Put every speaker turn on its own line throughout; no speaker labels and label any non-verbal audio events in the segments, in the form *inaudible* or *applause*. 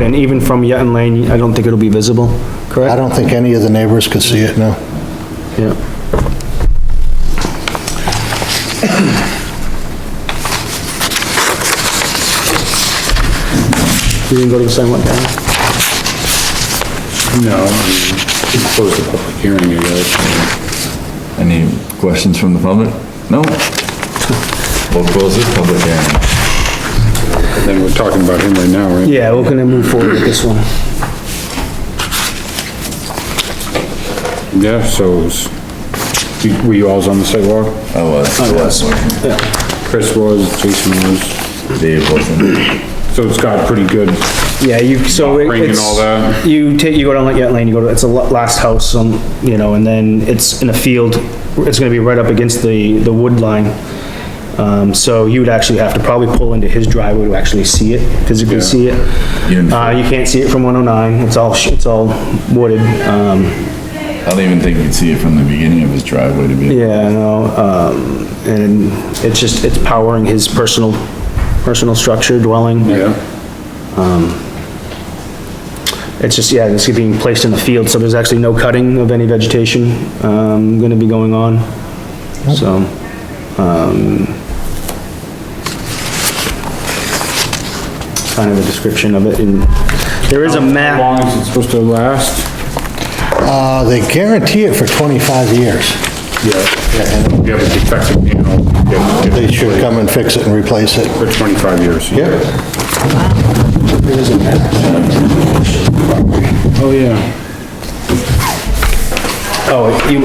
And even from Yetton Lane, I don't think it'll be visible, correct?
I don't think any of the neighbors could see it, no.
Yeah. You didn't go to the sidewalk, Dan?
No, it's close to public hearing, I guess.
Any questions from the public? No? We'll close this public hearing.
And then we're talking about him right now, right?
Yeah, we're gonna move forward with this one.
Yeah, so, it's- you- were you alls on the sidewalk?
I was. I
Chris was, Jason was,
Dave wasn't.
so it's got pretty good,
Yeah, you, so it-
Ring and
it's,
all that.
you take, you go down like Yetton Lane, you go to, it's the la- last house, um, you know, and then it's in a field, it's gonna be right up against the, the wood line. Um, so you would actually have to probably pull into his driveway to actually see it, physically see it.
You're-
Uh, you can't see it from one oh nine, it's all, sh- it's all wooded, um,
I don't even think you'd see it from the beginning of his driveway to be.
yeah, no, um, and it's just, it's powering his personal, personal structure dwelling.
yeah.
It's just, yeah, it's being placed in the field, so there's actually no cutting of any vegetation, um, gonna be going on, so. um, Kind of a description of it, and there is a
How
map,
long is it supposed to last?
Uh, they guarantee it for 25 years.
Yeah.
and
You have a defective panel. you have to get
They
it
should come and fix it and replace it.
For twenty-five years. Yeah. Oh, yeah.
oh, you,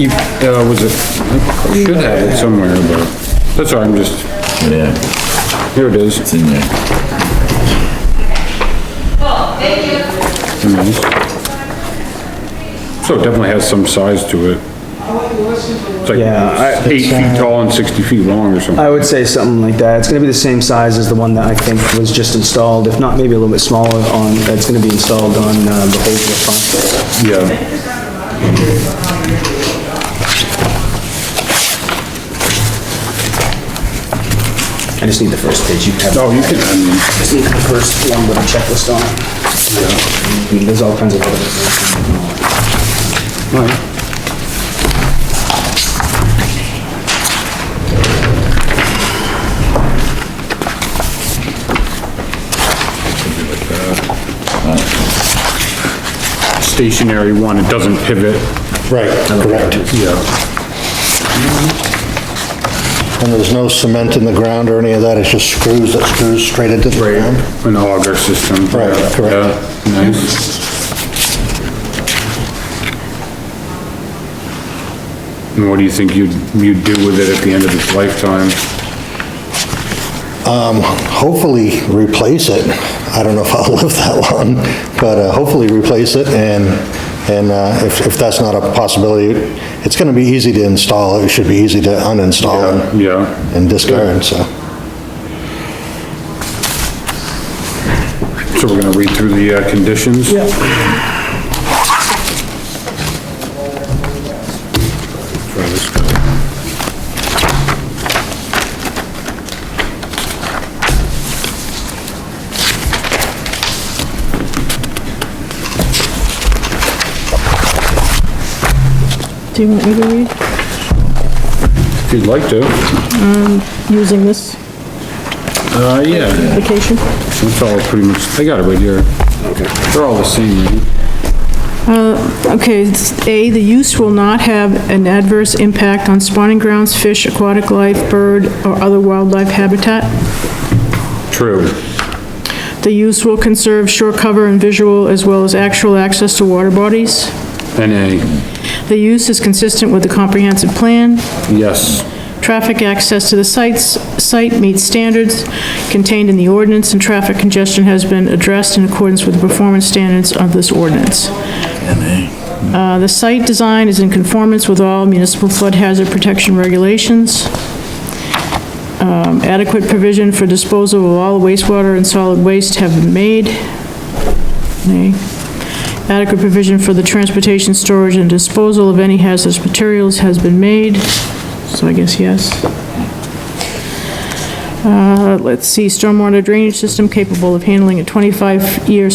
you,
Uh, was it, I should have it somewhere, but, that's all, right, I'm just,
Yeah,
here it is.
it's in there.
So it definitely has some size to it. It's Uh,
Yeah,
like uh,
I-
eight feet tall and sixty feet long or something.
I would say something like that, it's gonna be the same size as the one that I think was just installed, if not maybe a little bit smaller on, that's gonna be installed on, uh, the Holdsworth Farm.
Yeah.
I just need the first page, you have.
Oh, you can, I mean,
Just need the first one with a checklist on it. And There's all kinds of other. Alright.
stationary one, it doesn't pivot.
Right. Correct.
Yeah.
And there's no cement in the ground or any of that, it's just screws that screws straight into the ground.
An auger system.
Right, correct.
Yeah, Nice. And what do you think you'd, you'd do with it at the end of its lifetime?
Hopefully replace it. I don't know if *laughs* I'll live that long, but uh, hopefully replace it and, and uh, if, if that's not a possibility, it's gonna be easy to install, it should be easy to uninstall and-
Yeah.
and discard, so.
So we're gonna read through the uh, conditions? Yeah.
Do you want me to read
If you'd like to.
using this
Uh, yeah,
application?
that's all pretty much, I got it right here. They're all the same, right?
Okay, it's A, the use will not have an adverse impact on spawning grounds, fish, aquatic life, bird, or other wildlife habitat.
True.
The use will conserve shore cover and visual as well as actual access to water bodies.
NA,
The use is consistent with the comprehensive plan.
yes.
Traffic access to the sites, site meets standards contained in the ordinance, and traffic congestion has been addressed in accordance with the performance standards of this ordinance. Uh, The site design is in conformance with all municipal flood hazard protection regulations. Um, Adequate provision for disposal of all wastewater and solid waste have been made. Nay. Adequate provision for the transportation, storage, and disposal of any hazardous materials has been made, so I guess yes. Uh, Let's see, stormwater drainage system capable of handling a 25-year